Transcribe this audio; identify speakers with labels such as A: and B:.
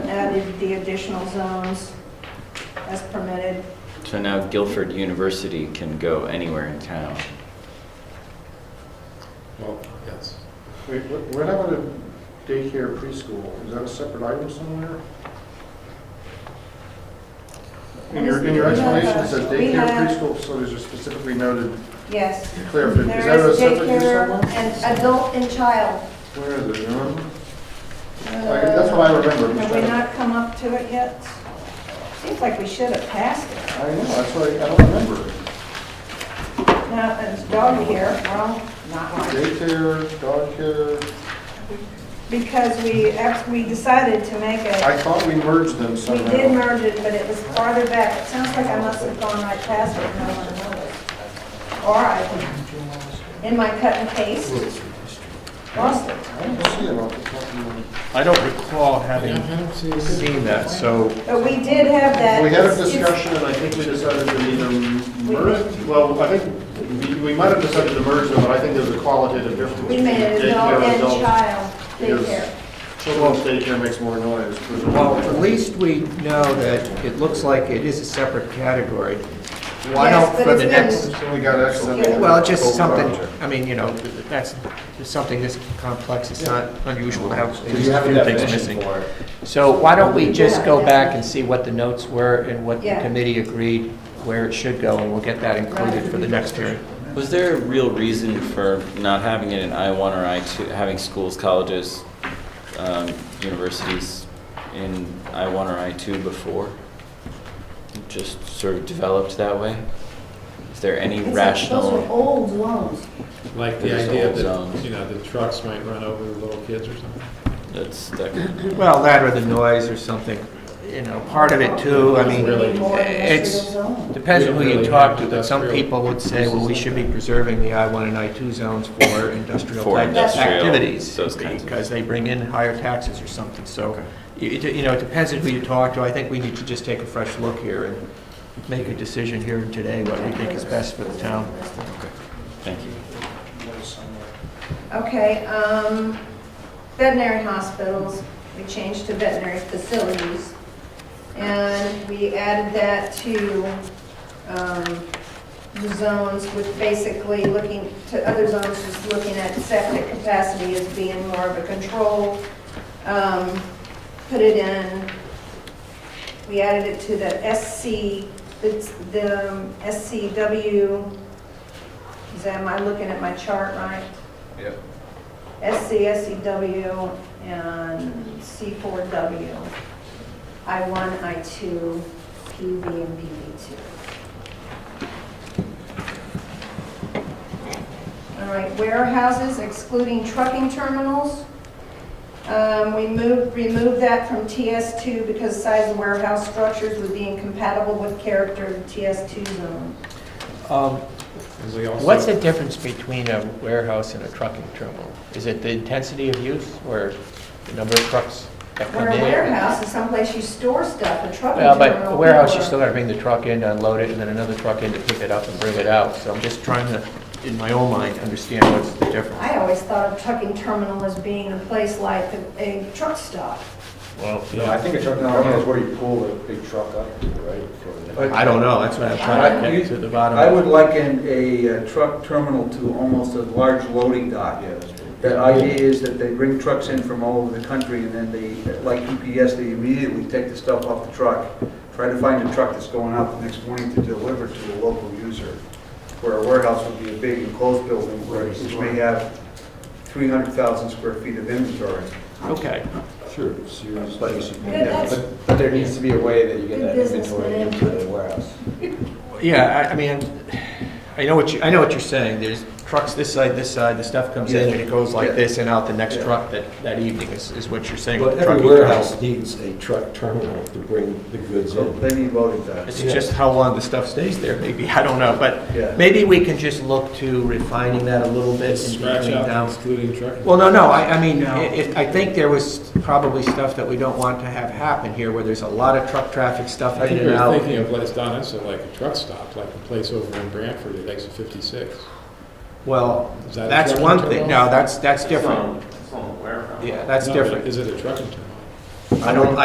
A: the additional zones as permitted.
B: So now Guilford University can go anywhere in town.
C: Well, yes.
D: Wait, what what happened to daycare preschool? Is that a separate item somewhere? In your, in your explanation, it says
A: uh, We
D: daycare
A: have-
D: preschool facilities are specifically noted,
A: Yes.
D: clear, is that
A: There
D: a
A: is
D: separate use
A: daycare
D: somewhere?
A: and adult and child.
D: Where is it, you remember? Like, that's what I remember. I'm just
A: Have we
D: trying to-
A: not come up to it yet? Seems like we should have passed it.
D: I know, that's what I, I don't remember.
A: Now, it's uh, dog here, well, not like,
D: Daycare, dog care,
A: because we, ex- we decided to make it,
D: I thought we merged them
A: we did
D: somehow.
A: merge it, but it was farther back. It sounds like I must have gone right past it, and no one noticed. Or I, in my cut and paste, lost it.
D: I don't see it off the top of my.
E: I don't recall having
C: haven't seen
E: seen that, so
A: But we did have that.
D: We had a
A: It's- it's-
D: discussion, and I think we decided to either merge, well, I think, we- we might have decided to merge them, but I think there's a qualitative difference.
A: We made it adult
D: Daycare,
A: and child
D: Yes.
A: daycare.
D: Children's daycare makes more noise. but-
E: Well, at least we know that it looks like it is a separate category. Why
A: Yes,
E: don't,
A: but
E: for
A: it's
E: the
A: been-
E: next,
D: So We got accidentally.
E: well, just something, I mean, you know, that's, it's something this complex, it's not unusual to have
C: Do
E: things
C: you have a
E: missing.
C: definition for it?
E: So why don't we just go
A: Yeah.
E: back and see what the notes were and what the
A: Yeah.
E: committee agreed where it should go, and we'll get that included for the next hearing.
B: Was there a real reason for not having it in I-1 or I-2, having schools, colleges, um, universities in I-1 or I-2 before? It Just sort of developed that way? Is there any
F: Those are
B: rational?
F: old zones.
C: Like the
B: There's
C: idea
B: old
C: that,
B: zones.
C: you know, the trucks might run over the little kids or something.
B: That's, that,
E: Well, that or the noise or something, you know, part of it too, I mean,
C: Really?
E: it's,
F: zone.
E: depends on who you
C: Really
E: talk to, but some
C: industrial
E: people would say, well, we should be preserving the I-1 and I-2 zones for industrial
B: For
E: type
B: industrial,
E: activities.
B: those kinds of-
E: Because they bring in higher taxes or something, so, it, it- you know, it depends on who you talk to. I think we need to just take a fresh look here and make a decision here and today what we think is best for the town.
B: thank you.
A: Okay, um, veterinary hospitals, we changed to veterinary facilities. And we added that to, um, the zones with basically looking, to other zones, just looking at septic capacity as being more of a control. Um, put it in, we added it to the SC, it's the um, SCW, is that, am I looking at my chart right? SC, SEW, and C4W, I1, I2, PV, and PV2. All right, warehouses excluding trucking terminals. Um, We moved, removed that from TS2 because size of warehouse structures would be incompatible with character of the TS2 zone.
E: Um,
C: And we also-
E: What's the difference between a warehouse and a trucking terminal? Is it the intensity of use or the number of trucks that come
A: Where
E: in?
A: a warehouse is someplace you store stuff, a trucking
E: Well,
A: terminal.
E: Uh, but a warehouse, you
A: or-
E: still gotta bring the truck in, to unload it, and then another truck in to pick it up and bring it out. So I'm just trying to, in my own mind, understand what's the difference.
A: I always thought of trucking terminal as being a place like a a truck stop.
E: Well,
G: No, I think a truck terminal is where you pull a big truck up to, right? for-
E: I don't know, that's what I'm trying to get to the bottom
H: I
E: of.
H: would liken a uh, truck terminal to almost a large loading dock.
G: Yeah, that's true.
H: The idea is that they bring trucks in from all over the country, and then they, like UPS, they immediately take the stuff off the truck, try to find a truck that's going out the next morning to deliver to a local user, where a warehouse would be a big enclosed building, where you may have 300,000 square feet of inventory.
E: Okay,
G: Sure. so you're just basically-
A: Yeah, that's-
G: But but there needs to be a way that you get
A: Good
G: that
A: business
G: inventory
A: plan.
G: into the warehouse.
E: yeah, I, I mean, I know what you, I know what you're saying. There's trucks this side, this side, the stuff comes in, and it goes like
H: Yeah.
E: this and out the next
H: Yeah.
E: truck that, that evening, is, is what you're saying. with
G: But
E: the trucking
G: every
E: terminal.
G: warehouse needs a truck terminal to bring the goods
H: So
G: in.
H: they need loading docks.
E: It's just how long the stuff stays there, maybe, I don't know,
H: Yeah.
E: but maybe we can just look to refining that a little bit. and
C: Scratch
E: dialing
C: out
E: down.
C: excluding trucking.
E: Well, no, no, I, I mean, i- if, I think there was probably stuff that we don't want to have happen here, where there's a lot of truck traffic stuff
C: I
E: in
C: think
E: and
C: we were
E: out.
C: thinking of, Les Donna, so like a truck stop, like the place over in Branford at exit 56.
E: Well,
C: Is that a
E: that's
C: truck
E: one
C: and
E: thing,
C: terminal?
E: no, that's, that's different.
D: It's on the warehouse.
E: Yeah, that's
C: No, but
E: different.
C: Is it a trucking terminal?
E: I don't,